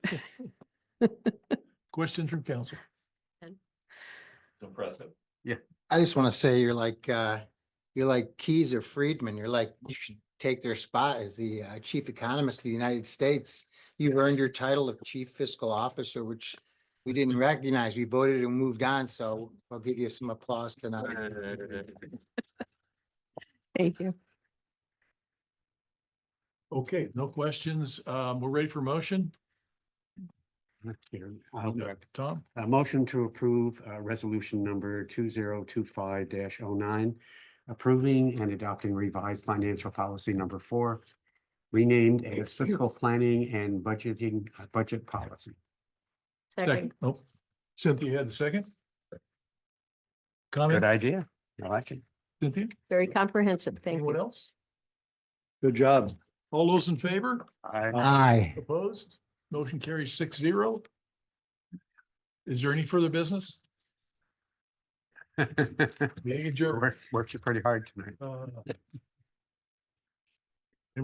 Questions from council? Impressive. I just want to say you're like, uh, you're like Keys or Friedman. You're like, you should take their spot as the uh, chief economist of the United States. You've earned your title of chief fiscal officer, which we didn't recognize. We voted and moved on, so I'll give you some applause tonight. Thank you. Okay, no questions. Um, we're ready for motion. Mr. Chair, You I'll got make it, Tom, A motion to approve uh, resolution number two zero two five 9 approving and adopting revised financial policy number four, renamed as fiscal planning and budgeting, uh, budget policy. second. Oh, Cynthia had the second. Comment, Good idea. I like it. Cynthia? Very comprehensive. Thank Anyone you. else? Good job. All those in favor? I Aye. Opposed? Motion carries six zero. Is there any further business? Meeting adjourned. Worked, worked you pretty hard tonight. Uh,